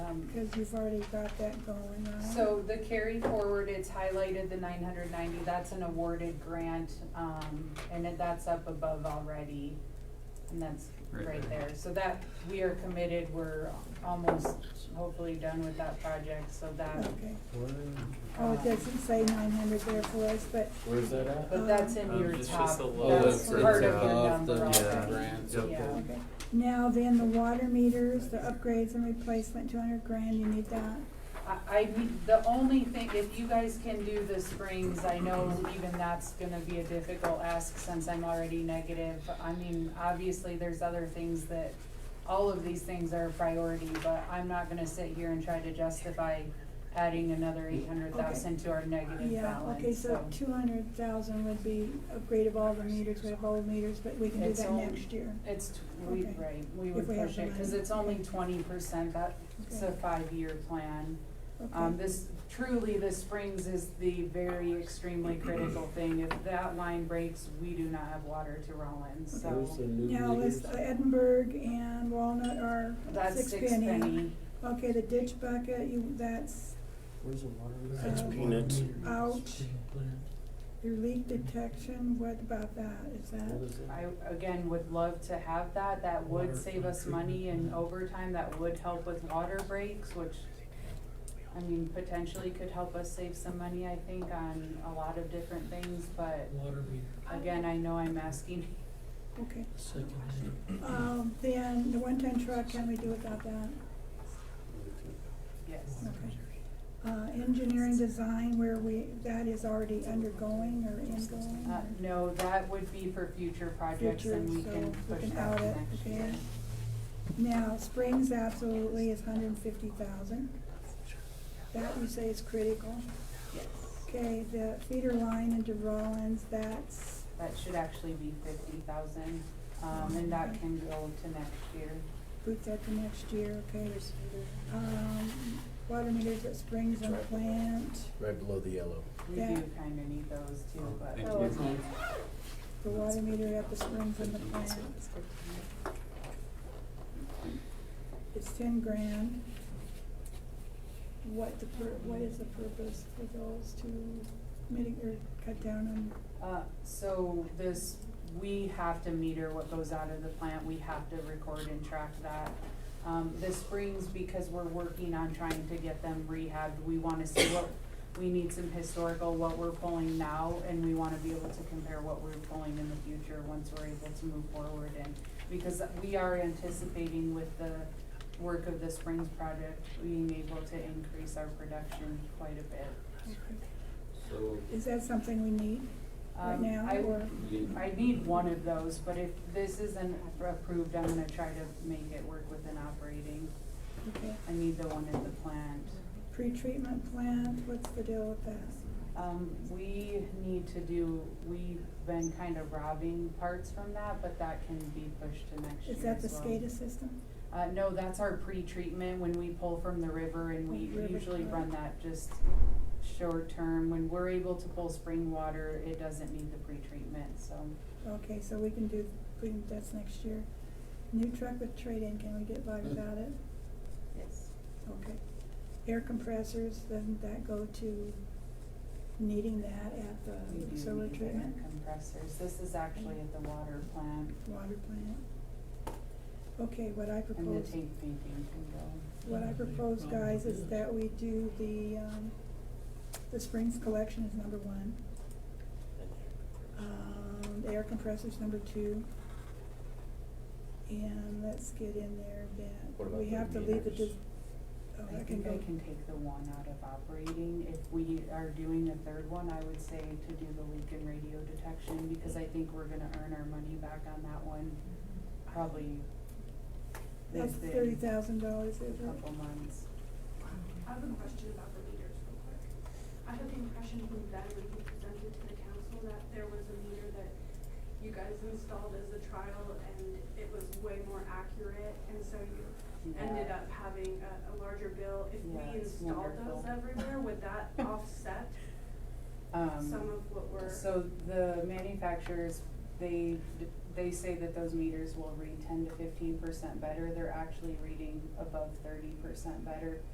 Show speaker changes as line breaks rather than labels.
Um,
because you've already got that going on.
So the carry forward, it's highlighted the nine hundred ninety, that's an awarded grant, um, and it- that's up above already. And that's
Right
right
there.
there, so that, we are committed, we're almost hopefully done with that project, so that,
Okay,
Where,
oh, it doesn't say nine hundred there for us, but
where's that at?
but that's in
Um,
your
it's
top,
just a little
that's
bit
part of
further
your
off the
number already, yeah.
Yeah.
grants.
Yep.
Okay, now then, the water meters, the upgrades and replacement, two hundred grand, you need that?
I, I, mean, the only thing, if you guys can do the springs, I know even that's gonna be a difficult ask since I'm already negative. I mean, obviously, there's other things that, all of these things are a priority, but I'm not gonna sit here and try to justify adding another eight hundred thousand to our negative
Yeah, okay,
balance,
so
so.
two hundred thousand would be upgrade of all the meters, we have old meters, but we can do
It's
that
all-
next year.
It's, t- we,
Okay.
right, we
If
would
we have
push
the
it, cause
money.
it's only twenty percent, that's a
Okay.
five-year plan.
Okay.
Um, this, truly, the springs is the very extremely critical thing. If that line breaks, we do not have water to Rollins,
Where's the
so
new
Now,
meters?
list Edinburgh and Walnut are
that's
six E.
six penny.
Okay, the ditch bucket, you, that's
Where's the water?
That's
meters?
peanuts.
out, your leak detection, what about that, is
What
that?
is it?
I, again, would love to have that. That would
Water
save us
treatment.
money in overtime. That would help with water breaks, which, I mean, potentially could help us save some money, I think, on a lot of different things, but
Water meter,
again, I know I'm asking.
Okay,
second hand.
um, then the one-ton truck, can we do without that?
Yes.
Okay. Uh, engineering design, where we, that is already undergoing or ingoing?
Uh,
or-
no, that would be for future projects and we
Future,
can
so we
push
can
that
out
to
it,
next
okay.
year.
Now, Springs absolutely is hundred and fifty thousand. That you say is critical.
Yes,
Okay, the feeder line into Rollins, that's,
that should actually be fifty thousand, um, and that can go to next year.
boot that to next year, okay. Um, water meters at Springs and Plant,
Right below the yellow.
We
Yeah.
do kinda need those too, but.
Thank
Oh,
you.
okay. the water meter at the Springs and the Plant, it's ten grand. What the pur- what is the purpose for those to mitigate or cut down on
Uh, so this, we have to meter what goes out of the plant, we have to record and track that. Um, the springs, because we're working on trying to get them rehabbed, we wanna see what, we need some historical, what we're pulling now, and we wanna be able to compare what we're pulling in the future once we're able to move forward and, because we are anticipating with the work of the springs project, being able to increase our production quite a bit.
So,
Is that something we need right
Um,
now,
I-
or,
you-
I need one of those, but if this isn't approved, I'm gonna try to make it work with an operating.
okay,
I need the one at the plant.
pre-treatment plant, what's the deal with that?
Um, we need to do, we've been kind of robbing parts from that, but that can be pushed to next year
Is that the
as well.
SCADA system?
Uh, no, that's our pre-treatment, when we pull from the river and we
Oh, River
usually
truck.
run that just short term. When we're able to pull spring water, it doesn't need the pre-treatment, so.
Okay, so we can do, we can, that's next year. New truck with trade-in, can we get by without it?
Yes.
Okay. Air compressors, then that go to needing that at
We
the
do
solar
need air
treatment,
compressors. This is actually at the water plant
water plant. Okay, what I
and the
propose,
tank painting can go.
what I propose, guys, is that we do the, um, the Springs collection is number one. Um, the air compressor's number two. And let's get in there
What
that,
about
we
the
have to leave the,
meters?
dis- oh,
I
that can
think
go,
I can take the one out of operating. If we are doing a third one, I would say to do the leak and radio detection because I think we're gonna earn our money back on that one probably
that's thirty
within
thousand dollars,
a
is it?
couple months.
I have a question about the meters real quick. I had the impression from Ben when he presented to the council that there was a meter that you guys installed as a trial and it was way more accurate and so you ended
Yeah.
up having a, a larger bill. If we
Yeah, it's
installed those
wonderful.
everywhere, would that offset
Um,
some of what we're?
So the manufacturers they, they say that those meters will read ten to fifteen percent better, they're actually reading above thirty percent better.